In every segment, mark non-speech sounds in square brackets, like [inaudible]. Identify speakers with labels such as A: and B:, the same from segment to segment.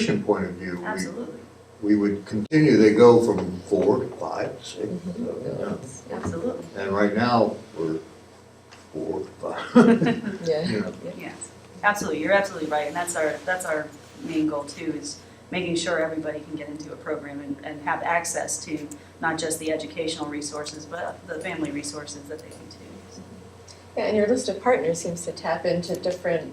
A: administration point of view,
B: Absolutely,
A: we, we would continue, they go from four to five, to six,
B: Mm-hmm.
A: so,
B: absolutely,
A: yeah. And right now, we're four, to
B: [laughs]
A: five,
C: Yeah,
A: you know.
B: yes, absolutely, you're absolutely right, and that's our, that's our main goal too, is making sure everybody can get into a program and, and have access to not just the educational resources, but the family resources that they can too.
C: Yeah, and your list of partners seems to tap into different,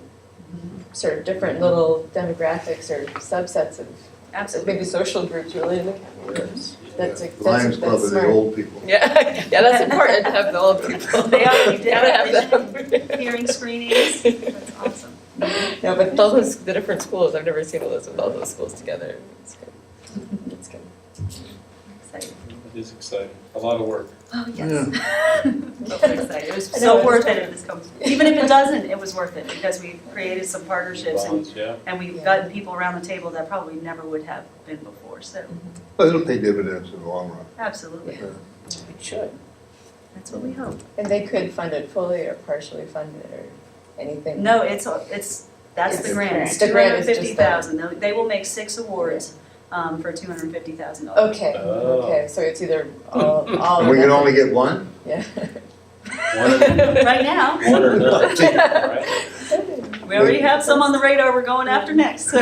C: sort of different little demographics or subsets of, maybe
B: Absolutely,
C: social groups really in the county. That's,
A: Yeah.
C: that's,
A: Lions
C: that's
A: Club are the
C: smart.
A: old people.
C: [laughs] Yeah, yeah, that's important to have the old
B: [laughs]
C: people.
B: They are, you
C: You [laughs] gotta have
B: [laughs]
C: them.
B: hearing
C: [laughs]
B: screenings, that's awesome.
C: No, but all those, the different schools, I've never seen a list with all those schools together. It's good. It's good.
B: Exciting.
D: It is exciting, a lot of work.
B: Oh,
A: yes.
B: [laughs] But we're excited. It was
C: I know,
B: so
C: it was
B: worth it
C: fun.
B: if this comes, even if it doesn't, it was worth it, because we created some partnerships and
D: Bonds, yeah.
B: And we've
C: Yeah.
B: gotten people around the table that probably never would have been before, so
A: But it'll pay dividends in the long run.
B: absolutely,
A: Yeah.
C: It should.
B: that's what we hope.
C: And they could fund it fully or partially fund it or anything.
B: No, it's, a- it's, that's the
A: It's-
B: grant,
C: it's
B: two
C: the
B: hundred
C: grant,
B: and
C: it's just
B: fifty thousand, they will make six awards um, for two hundred and fifty thousand dollars.
C: Okay,
D: Oh.
C: okay, so it's either all,
B: Oh,
C: all.
A: And
C: or
A: we can
C: nothing.
A: only get one?
C: Yeah.
D: One or-
B: [laughs] Right now,
D: one
E: [laughs]
D: or nothing, right?
B: we already have some on the radar we're going after next, so.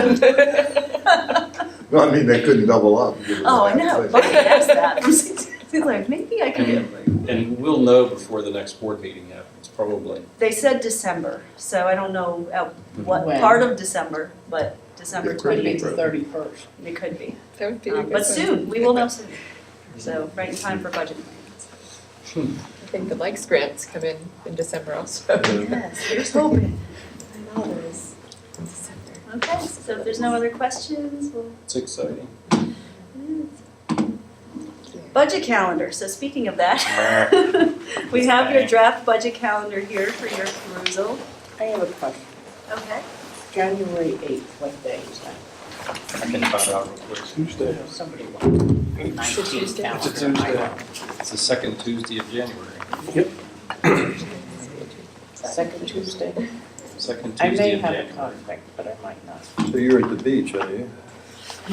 A: No, I mean, they couldn't double up. give us
B: [laughs] Oh, I
A: that
B: know,
A: place.
B: I asked that, [laughs] It's like, maybe I can.
D: And and we'll know before the next board meeting happens, probably.
B: They said December, so I don't know at what
E: When?
B: part of December, but December
A: It could
B: twenty
A: be
B: eighth,
A: April.
E: thirty-first.
B: it could be.
C: That would be a
B: Um,
C: good
B: But
C: one.
B: soon, we will know soon. So right in time for budget plans.
C: I think the likes grants come in in December also.
B: Yes, here's hoping.
C: I know, there's December.
B: Okay, so if there's no other questions, we'll.
D: It's exciting.
B: Budget calendar, so speaking of that, [laughs] we have your draft budget calendar here for your perusal.
E: I have a question.
B: Okay.
E: January eighth, what day is that?
D: I can find out real quick.
E: I know Somebody
C: It's
E: wants
C: a Tuesday.
E: calendar.
D: It's a Tuesday. It's the second Tuesday of January,
C: Oh,
E: Second Tuesday?
D: second
E: I
D: Tuesday
E: may
D: of
E: have a
D: January.
E: conflict, but I might not.
F: So you're at the beach, are you?
E: I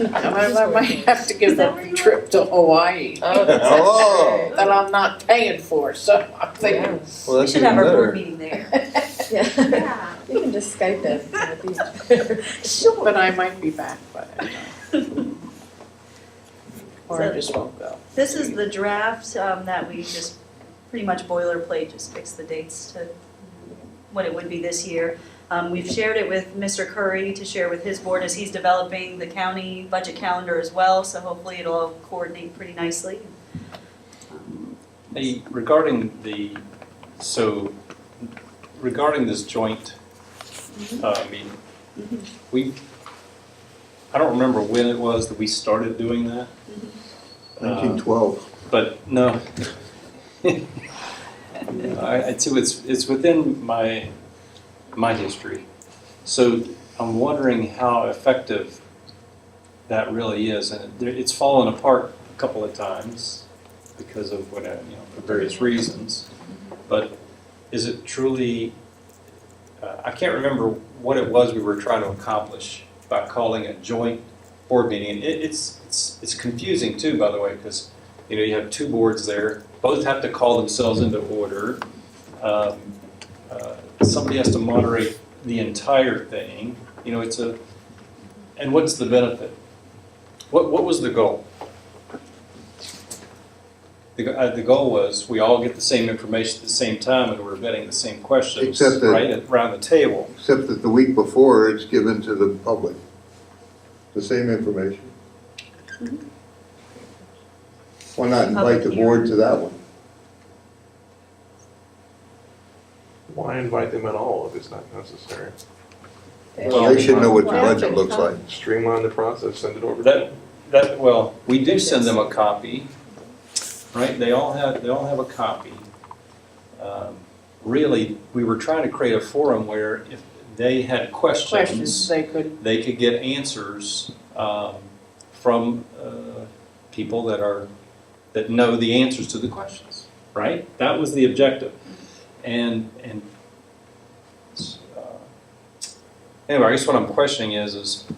E: might- I might have to
B: Is
E: give
B: that
E: up
B: where
E: the
B: you
E: trip to Hawaii
C: Oh, that's actually
A: Oh.
E: that I'm not paying for, so I'm
F: Well,
E: thinking.
B: We
F: that's
B: should
F: even
B: have our
F: better.
B: board meeting there. [laughs]
C: great. Yeah, [laughs] you can just Skype us from the
E: Sure. But I might be back by that time. Or I
B: So-
E: just won't go.
B: This is the draft um, that we just pretty much boilerplate, just fix the dates to what it would be this year. Um, We've shared it with Mr. Curry to share with his board as he's developing the county budget calendar as well, so hopefully it'll all coordinate pretty nicely.
D: Hey, regarding the, so regarding this joint, uh, meeting, we, I don't remember when it was that we started doing that. Uh,
A: 1912.
D: But no. I, I too, it's, it's within my, my history. So I'm wondering how effective that really is. And it- there- it's fallen apart a couple of times because of what, I- you know, for various reasons. But is it truly, uh, I can't remember what it was we were trying to accomplish by calling a joint board meeting. And it, it's, it's, it's confusing too, by the way, because you know, you have two boards there, both have to call themselves into order. Um, uh, Somebody has to moderate the entire thing, you know, it's a, and what's the benefit? What, what was the goal? The, go- uh, the goal was, we all get the same information at the same time and we're vetting the same questions,
A: Except that-
D: right, around the table.
A: Except that the week before, it's given to the public. The same information. Why not invite the board to that one?
G: Why invite them at all if it's not necessary?
A: Well, they should know what your
C: Well,
A: budget looks like.
G: Streamline the process, send it over. to
D: That, that, well, we do send them a copy, right? They all have, they all have a copy. Um, Really, we were trying to create a forum where if they had
E: Questions
D: questions,
E: they could,
D: they could get answers um, from uh, people that are, that know the answers to the questions, right? That was the objective. And, and, uh, anyway, I guess what I'm questioning is, is